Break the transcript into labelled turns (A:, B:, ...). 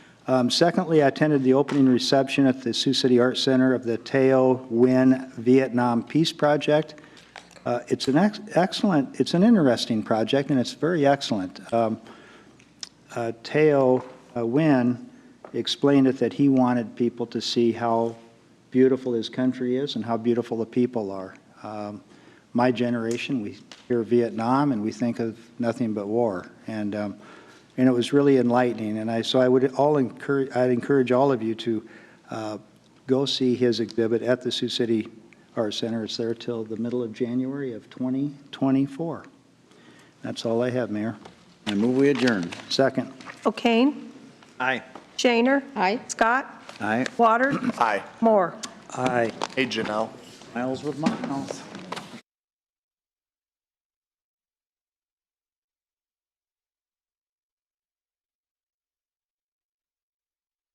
A: Um, Secondly, I attended the opening reception at the Sioux City Art Center of the Teo Nguyen Vietnam Peace Project. Uh, It's an ex- excellent, it's an interesting project, and it's very excellent. Um, uh, Teo uh, Nguyen explained it that he wanted people to see how beautiful his country is and how beautiful the people are. Um, My generation, we hear Vietnam and we think of nothing but war. And, um, and it was really enlightening. And I, so I would all encourage, I'd encourage all of you to uh, go see his exhibit at the Sioux City Art Center. It's there till the middle of January of 2024. That's all I have, Mayor.
B: I move we adjourn.
A: Second.
C: O'Kane.
B: Aye.
C: Shaner.
D: Aye.
C: Scott.
B: Aye.
C: Water.
E: Aye.
C: Moore.
A: Aye.
E: Hey, Janelle.
B: Miles with miles.